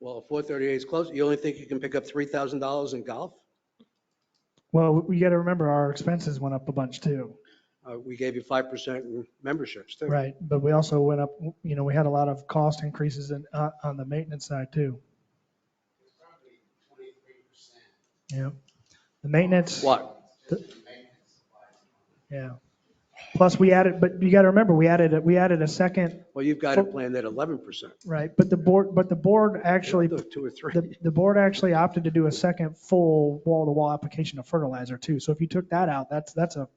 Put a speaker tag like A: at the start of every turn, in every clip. A: Well, 438 is close. You only think you can pick up $3,000 in golf?
B: Well, we got to remember our expenses went up a bunch too,
A: Uh, We gave you 5% in memberships too.
B: right? But we also went up, you know, we had a lot of cost increases in, uh, on the maintenance side too.
C: It's probably twenty-three percent.
B: Yeah. The maintenance,
A: What?
C: Just in maintenance supplies.
B: yeah. Plus we added, but you got to remember, we added, we added a second,
A: Well, you've got it planned at 11%.
B: right? But the board, but the board actually,
A: Do Two or three.
B: the, the board actually opted to do a second full wall-to-wall application of fertilizer too. So if you took that out, that's, that's a,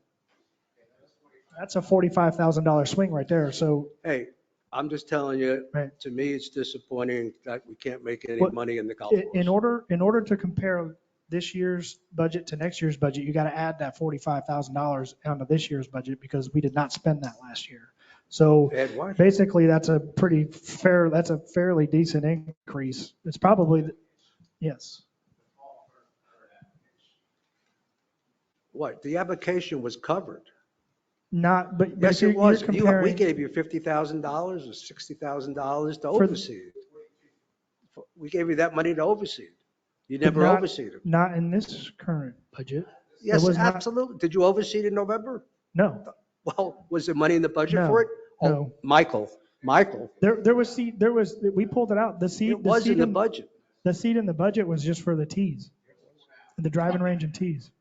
B: that's a $45,000 swing right there. So
A: Hey, I'm just telling you,
B: Right.
A: to me, it's disappointing that we can't make any
B: Well,
A: money in the golf
B: In- In
A: course.
B: order, in order to compare this year's budget to next year's budget, you got to add that $45,000 onto this year's budget because we did not spend that last year. So
A: Ed, what?
B: basically, that's a pretty fair, that's a fairly decent increase. It's probably, yes.
A: What? The application was covered.
B: Not, but. but
A: Yes,
B: you're-
A: it was.
B: you're
A: You- We
B: comparing-
A: gave you $50,000 or $60,000 to
B: the-
A: oversee it. We gave you that money to oversee it. You
B: But
A: never
B: not-
A: overseed it.
B: Not in this current budget.
A: Yes,
B: was not-
A: absolutely. Did you oversee it in November?
B: No,
A: Well, was there money in the budget
B: No,
A: for it? Oh,
B: no.
A: Michael, Michael,
B: there, there was seed, there was, we pulled it out. The
A: it
B: seed, the
A: was in
B: seed,
A: the
B: in-
A: budget.
B: the seed in the budget was just for the tees, the driving range and tees.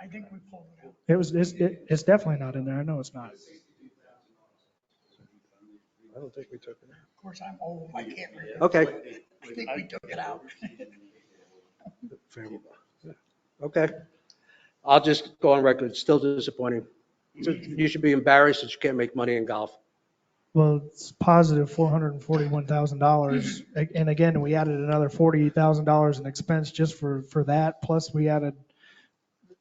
D: I think we pulled it out.
B: It was, it's, it- it's definitely not in there. I know it's not.
A: I don't think we took it.
D: Of course, I'm old, I can't remember.
A: Okay.
D: I think we took it out.
A: Okay. I'll just go on record, it's still disappointing. You should be embarrassed that you can't make money in golf.
B: Well, it's positive four hundred and forty-one thousand dollars. And again, we added another forty thousand dollars in expense just for, for that. Plus we added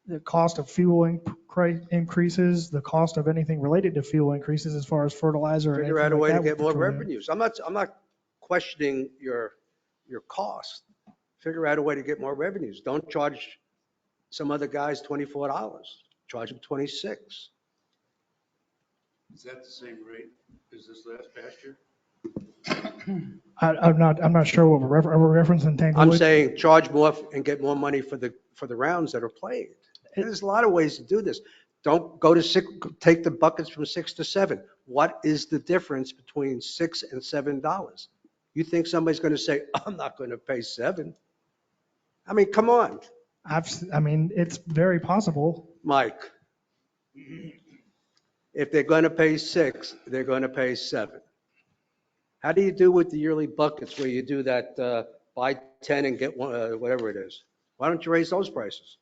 B: the cost of fuel incre- increases, the cost of anything related to fuel increases as far as fertilizer. and
A: Figure out a
B: anything
A: way
B: like
A: to
B: that
A: get more
B: with petroleum.
A: revenues. I'm not, I'm not questioning your, your cost. Figure out a way to get more revenues. Don't charge some other guys $24, charge them 26.
E: Is that the same rate as this last past year?
B: I, I'm not, I'm not sure what we're refer- are we referencing
A: I'm
B: Tanglewood.
A: saying charge more and get more money for the, for the rounds that are played. And There's a lot of ways to do this. Don't go to six, take the buckets from six to seven. What is the difference between six and seven dollars? You think somebody's going to say, I'm not going to pay seven? I mean, come on,
B: I've, s- I mean, it's very possible.
A: Mike. If they're going to pay six, they're going to pay seven. How do you do with the yearly buckets where you do that, uh, buy 10 and get one, uh, whatever it is? Why don't you raise those prices?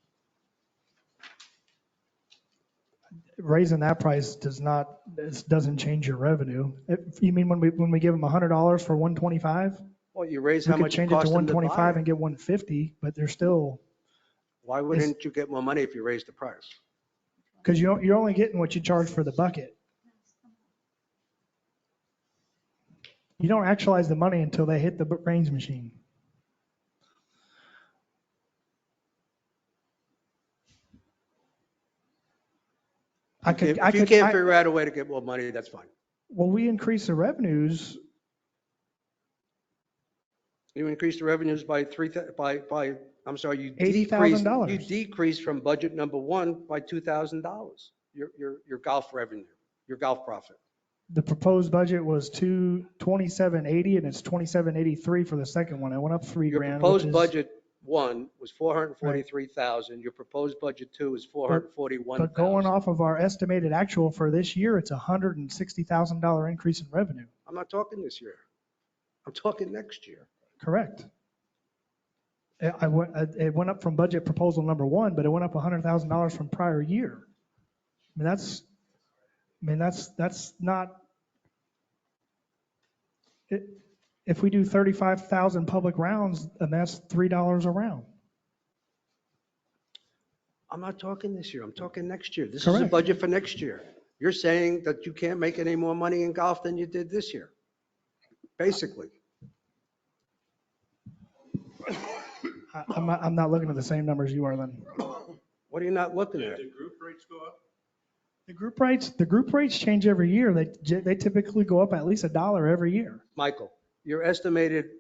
B: raising that price does not, this doesn't change your revenue. If- You mean when we, when we give them $100 for 125?
A: Well, you raise
B: We
A: how
B: could
A: much it
B: change it to
A: costs them to buy
B: 125 and
A: it.
B: get 150, but they're still,
A: Why wouldn't you get more money if you raise the price?
B: because you, don't- you're only getting what you charge for the bucket. You don't actualize the money until they hit the b- range machine. I
A: If
B: could, I
A: if
B: could.
A: you can't
B: I-
A: figure out a way to get more money, that's fine.
B: Well, we increase the revenues,
A: You increase the revenues by three, thou- by, by, I'm sorry, you decrease,
B: $80,000.
A: you decrease from budget number one by $2,000, your, your, your golf revenue, your golf profit.
B: the proposed budget was two, twenty-seven eighty, and it's twenty-seven eighty-three for the second one. It went up three
A: Your
B: grand. which
A: proposed
B: is-
A: budget one was 443,000. Your proposed budget two is
B: But going
A: 441,000.
B: off of our estimated actual for this year, it's a hundred and sixty thousand dollar increase in revenue.
A: I'm not talking this year. I'm talking next year.
B: Correct. It, I went, uh, it went up from budget proposal number one, but it went up a hundred thousand dollars from prior year. I mean, that's, I mean, that's, that's not. It, if we do thirty-five thousand public rounds, and that's three dollars a round.
A: I'm not talking this year, I'm talking next year. This is a
B: Correct.
A: budget for next year. You're saying that you can't make any more money in golf than you did this year, basically.
B: I, I'm not, I'm not looking at the same numbers you are then.
A: What are you not looking
E: Did
A: at?
E: the group rates go up?
B: The group rates, the group rates change every year. They, they typically go up at least a dollar every year.
A: Michael, your estimated